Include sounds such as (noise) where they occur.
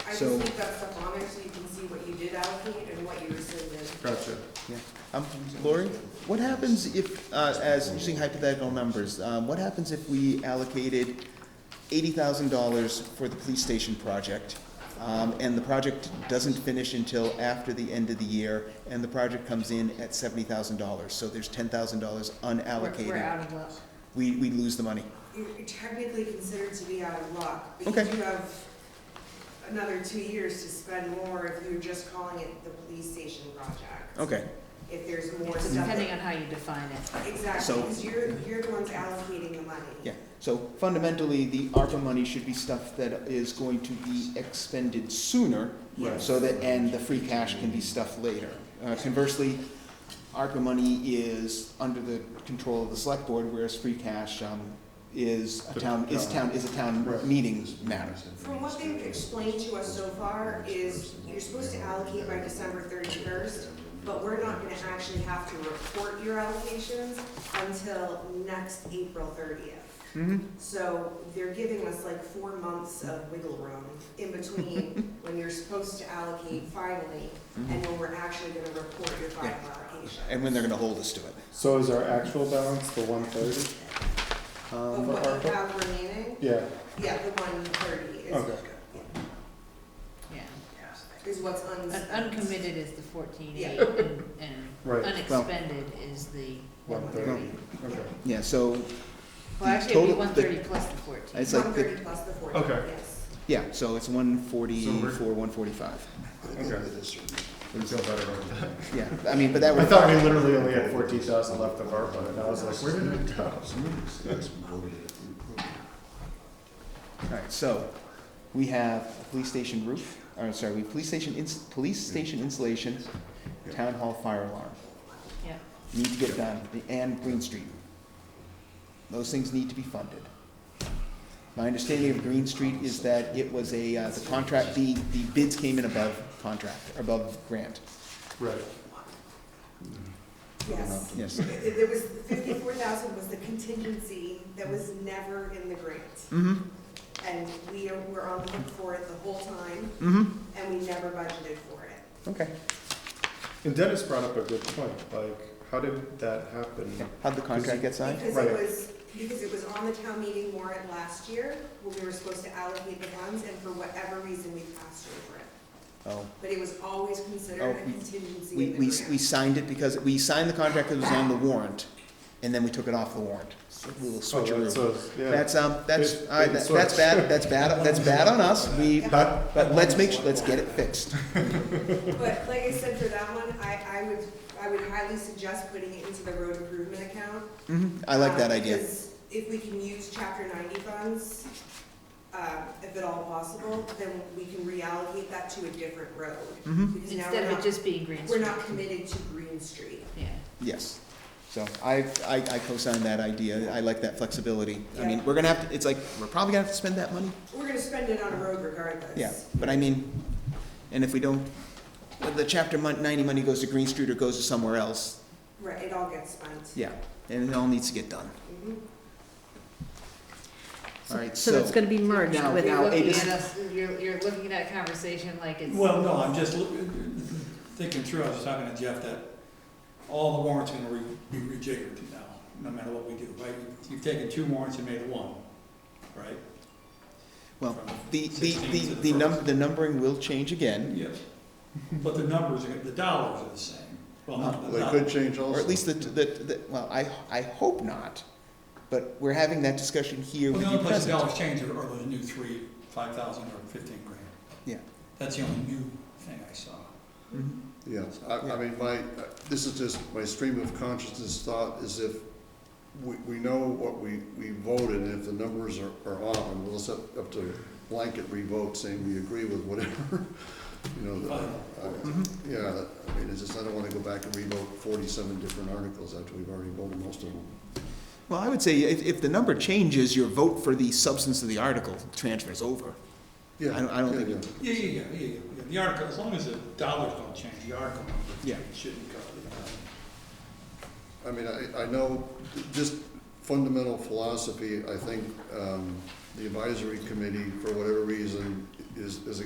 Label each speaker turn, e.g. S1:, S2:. S1: I just
S2: So-
S1: leave that stuff on there so you can see what you did allocate and what you rescinded.
S2: Gotcha.
S3: Yeah. Um, Lori, what happens if, uh, as using hypothetical numbers, um, what happens if we allocated eighty thousand dollars for the police station project? Um, and the project doesn't finish until after the end of the year, and the project comes in at seventy thousand dollars, so there's ten thousand dollars
S1: We're- We're
S3: unallocated.
S1: out of luck.
S3: We, we lose the money.
S1: You're technically considered to be out of luck, because
S3: Okay.
S1: you have another two years to spend more if you're just calling it the police station project.
S3: Okay,
S1: If there's more
S4: It's
S1: stuff.
S4: Depending on how you define it.
S1: Exactly,
S3: So-
S1: because you're, you're the ones allocating the money.
S3: yeah, so fundamentally, the ARPA money should be stuff that is going to be expended sooner
S2: Yes.
S3: So that, and the free cash can be stuffed later. Uh, Conversely, ARPA money is under the control of the select board, whereas free cash um, is a town, is town, is a town meeting matter.
S1: From what they've explained to us so far is you're supposed to allocate by December thirty-first, but we're not gonna actually have to report your allocations until next April thirtieth. So they're giving us like four months of wiggle room in between when you're supposed to allocate finally and when we're actually gonna report your final allocation.
S3: Mm-hmm. And when they're gonna hold us to it.
S5: So is our actual balance the one thirty?
S1: But
S5: Um, for
S1: what you
S5: ARPA?
S1: have remaining,
S5: Yeah,
S1: yeah, the one thirty
S5: Okay.
S1: is,
S4: Yeah.
S1: is what's
S4: Un-
S1: unspent.
S4: Uncommitted is the fourteen eight
S1: Yeah.
S4: and, and
S5: Right.
S4: unexpended is the one
S5: One
S4: thirty.
S5: thirty. okay.
S3: Yeah, so,
S4: Well, actually, it'd be
S3: Total-
S4: one thirty plus the fourteen.
S3: It's like the-
S1: One thirty plus the forty,
S2: Okay.
S1: yes.
S3: yeah, so it's one
S2: So
S3: forty-four,
S2: we're-
S3: one forty-five.
S2: Okay. I feel better about that.
S3: Yeah, I mean, but that
S5: I
S3: would.
S5: thought we literally only had fourteen thousand left of ARPA, and I was like, where did it go?
S3: Alright, so, we have a police station roof, or sorry, we have police station ins, police station insulation, town hall fire alarm.
S4: Yeah.
S3: need to get done, the- and Green Street. Those things need to be funded. My understanding of Green Street is that it was a, uh, the contract, the, the bids came in above contract, above grant,
S5: Right,
S1: Yes.
S3: yes.
S1: It- it- There was, fifty-four thousand was the contingency that was never in the grant.
S3: Mm-hmm,
S1: And we are- were on the hook for it the whole time,
S3: mm-hmm,
S1: and we never budgeted for it.
S3: okay.
S5: and Dennis brought up a good point, like, how did that happen?
S3: How'd the contract get signed?
S1: Because it
S5: Right.
S1: was, because it was on the town meeting warrant last year, where we were supposed to allocate the funds, and for whatever reason, we passed over it.
S3: Oh,
S1: But it was always considered
S3: Oh,
S1: a
S3: we-
S1: contingency
S3: we,
S1: in
S3: we,
S1: the
S3: we
S1: grant.
S3: signed it because, we signed the contract that was on the warrant, and then we took it off the warrant. So we will
S5: Oh,
S3: switch
S5: that's,
S3: around.
S5: a- yeah,
S3: That's, um, that's,
S5: Bait-
S3: I,
S5: bait and
S3: that's
S5: switch.
S3: bad, that's bad, that's bad on us, we,
S5: that,
S3: but let's make, su- let's get it fixed.
S1: But like I said, for that one, I, I would, I would highly suggest putting it into the road improvement account.
S3: hmm I like that
S1: Um,
S3: idea.
S1: because If we can use chapter ninety funds, uh, if at all possible, then we can reallocate that to a different road.
S3: Mhm.
S1: Because now
S4: Instead
S1: we're
S4: of it
S1: not,
S4: just being green
S1: we're
S4: screen.
S1: not committed to Green Street.
S4: Yeah.
S3: Yes. So I, I, I co-sign that idea. I like that flexibility. I mean,
S1: Yeah.
S3: we're gonna have to, it's like, we're probably gonna have to spend that money.
S1: We're gonna spend it on a road regardless.
S3: Yeah, but I mean, and if we don't, the chapter mon- ninety money goes to Green Street or goes to somewhere else,
S1: Right, it all gets spent.
S3: yeah, and it all needs to get done.
S1: Mhm.
S3: All right,
S6: So
S3: so,
S6: it's gonna be merged
S3: Now-
S6: with,
S4: You're
S3: now,
S4: looking
S3: it is-
S4: at us, you're, you're looking at that conversation like it's.
S7: Well, no, I'm just loo- thinking through, I was talking to Jeff, that all the warrants are gonna re- be rejiggered now, no matter what we do, right? You've taken two warrants and made it one, right?
S3: well,
S7: From-
S3: the, the,
S7: 16
S3: the,
S7: to the
S3: the num,
S7: first.
S3: the numbering will change again,
S7: Yes. But the numbers, are gonna- the dollars are the same. Well, not the
S5: they could
S7: dollars.
S5: change also.
S3: or at least the, the, the, well, I, I hope not, but we're having that discussion here
S7: Well,
S3: with
S7: the
S3: you
S7: only place the
S3: present.
S7: dollars change are are the new three, five thousand or fifteen grand.
S3: Yeah.
S7: That's the only new thing I saw.
S3: Mhm.
S8: Yeah, I, I mean, my, uh, this is just, my stream of consciousness thought is if we, we know what we, we voted, and if the numbers are, are off, and we'll set up to blanket revote saying we agree with whatever, (laughs) you know, the- I-
S3: Mhm.
S8: yeah, I mean, it's just, I don't wanna go back and revote forty-seven different articles after we've already voted most of them.
S3: Well, I would say if, if the number changes, your vote for the substance of the article transfers over.
S8: Yeah,
S3: I don't- I don't
S8: yeah,
S3: think-
S8: yeah.
S7: Yeah, yeah, yeah, yeah, yeah, the article, as long as the dollars don't change, the article
S3: Yeah.
S7: number shouldn't go.
S8: I mean, I, I know, just fundamental philosophy, I think, um, the advisory committee, for whatever reason, is, is